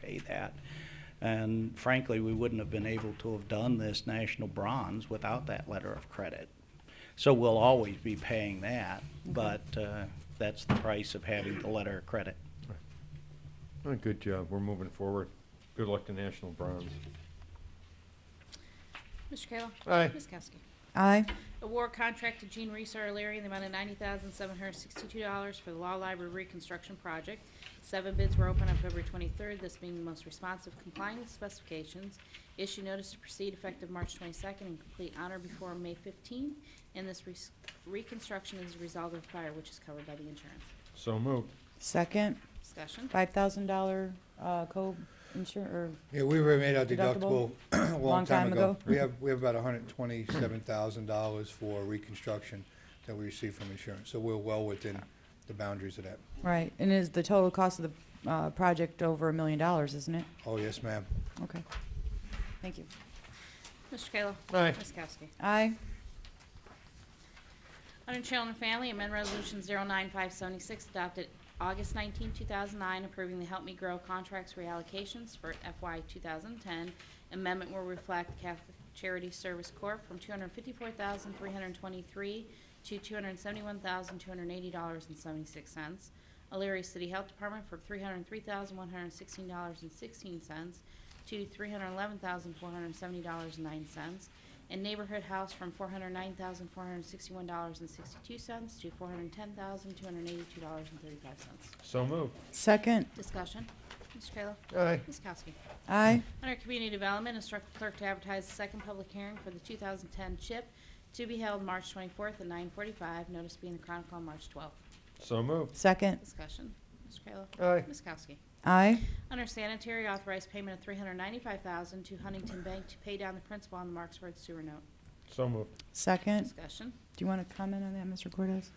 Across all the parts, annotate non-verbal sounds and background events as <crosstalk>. say that. And frankly, we wouldn't have been able to have done this national bronze without that letter of credit. So we'll always be paying that, but uh, that's the price of having the letter of credit. Oh, Good job. We're moving forward. Good luck to National Bronze. Mr. Kayla. Aye. Ms. Kowski. Aye. Award contract to Jean Reese O'Leary in the amount of ninety thousand seven hundred sixty-two dollars for the Law Library Reconstruction Project. Seven bids were open on February twenty-third, this being the most responsive complying with specifications. Issue notice to proceed effective March twenty-second and complete honor before May fifteenth. And this res- reconstruction is a result of fire which is covered by the insurance. So moved. Second, Discussion. five thousand dollar, uh, co-insure, Yeah, we were made our Deductible? deductible <clears throat> a long time ago. ago. We have, we have about hundred and twenty-seven thousand dollars for reconstruction that we received from insurance, so we're well within the boundaries of that. or, right, and is the total cost of the, uh, project over a million dollars, isn't it? Oh, yes, ma'am. Okay. Thank you. Mr. Kayla. Aye. Ms. Kowski. Aye. Under Children and Family, amend Resolution 09576 adopted August 19, 2009, approving the Help Me Grow contracts reallocations for FY 2010. Amendment will reflect Catholic Charity Service Corp. from $254,323 to $271,280.76. Elyria City Health Department for $303,116.16 to $311,470.09, and Neighborhood House from $409,461.62 to $410,282.35. So moved. Second, Discussion. Mr. Kayla. Aye. Ms. Kowski. aye. Under Community Development, instruct the clerk to advertise the second public hearing for the 2010 CHIP to be held March 24th at 9:45, notice being the Chronicle on March 12th. So moved. Second, Discussion. Mr. Kayla. Aye. Ms. Kowski. aye. Under sanitary, authorized payment of $395,000 to Huntington Bank to pay down the principal on the Marksburg sewer note. So moved. Second, Discussion. do you want to comment on that, Mr. Cortez?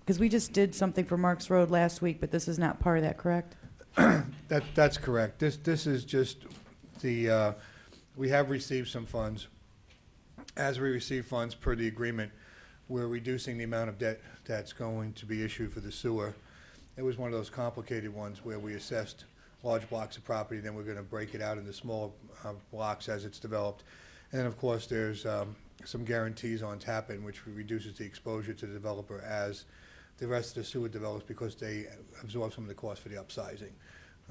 Because we just did something for Marks Road last week, but this is not part of that, correct? That, that's correct. This, this is just the, uh, we have received some funds. As we receive funds per the agreement, we're reducing the amount of debt that's going to be issued for the sewer. It was one of those complicated ones where we assessed large blocks of property, then we're gonna break it out into small, uh, blocks as it's developed. And then, of course, there's, um, some guarantees on tap in, which reduces the exposure to the developer as the rest of the sewer develops because they absorb some of the cost for the upsizing.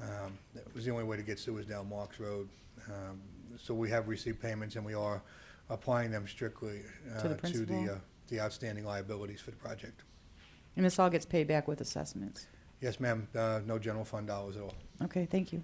Um, That was the only way to get sewers down Marks Road. Um, So we have received payments, and we are applying them strictly uh, the to principal? the uh, the outstanding liabilities for the project. And this all gets paid back with assessments. Yes, ma'am, uh, no general fund dollars at all. Okay, thank you.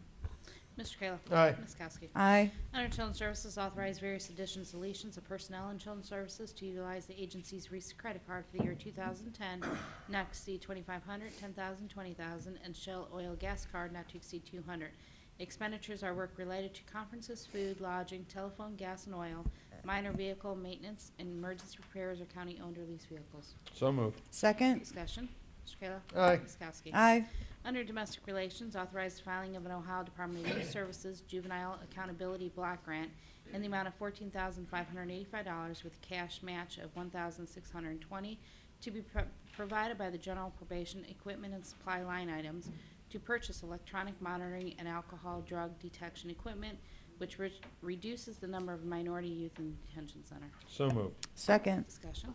Mr. Kayla. Aye. Ms. Kowski. Aye. Under Children's Services, authorize various additions, deletions of personnel in Children's Services to utilize the agency's Reese credit card for the year 2010, not to exceed 2,500, 10,000, 20,000, and Shell Oil Gas Card not to exceed 200. Expenditures are work related to conferences, food, lodging, telephone, gas, and oil, minor vehicle maintenance, and emergency repairs of county-owned or leased vehicles. So moved. Second, Discussion. Mr. Kayla. Aye. Ms. Kowski. aye. Under Domestic Relations, authorize the filing of an Ohio Department of Youth Services Juvenile Accountability Block Grant in the amount of fourteen thousand five hundred eighty-five dollars with cash match of one thousand six hundred and twenty to be pro- provided by the general probation equipment and supply line items to purchase electronic monitoring and alcohol drug detection equipment, which re- reduces the number of minority youth in detention center. So moved. Second, Discussion.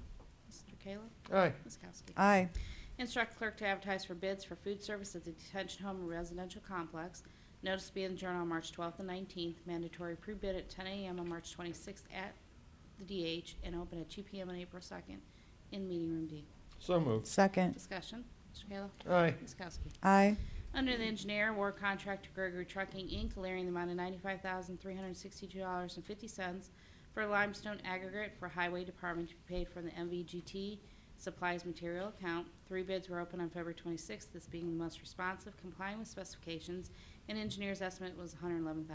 Mr. Kayla. Aye. Ms. Kowski. aye. Instruct clerk to advertise for bids for food service at the detention home and residential complex. Notice to be in the Journal on March 12th and 19th. Mandatory pre-bid at 10 a.m. on March 26th at the DH and open at 2 p.m. on April 2nd in Meeting Room D. So moved. Second, Discussion. Mr. Kayla. Aye. Ms. Kowski. aye. Under the engineer, war contract to Gregory Trucking, Inc., clearing the amount of ninety-five thousand, three hundred and sixty-two dollars and fifty cents for limestone aggregate for highway department to be paid from the MVGT supplies material account. Three bids were open on February twenty-sixth, this being the most responsive, complying with specifications, and engineer's estimate was $111,000.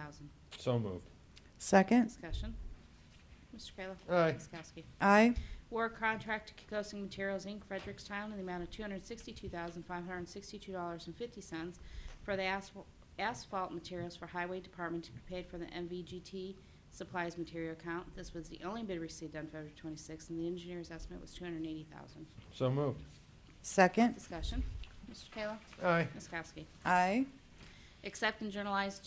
So moved. Second, Discussion. Mr. Kayla. Aye. Ms. Kowski. aye. War contract to Kikosing Materials, Inc., Frederickstown, in the amount of $262,562.50 for the asphal- asphalt materials for Highway Department to be paid from the MVGT Supplies Material Account. This was the only bid received on February 26th, and the engineer's estimate was $280,000. So moved. Second, Discussion. Mr. Kayla. Aye. Ms. Kowski. aye. Accept and journalize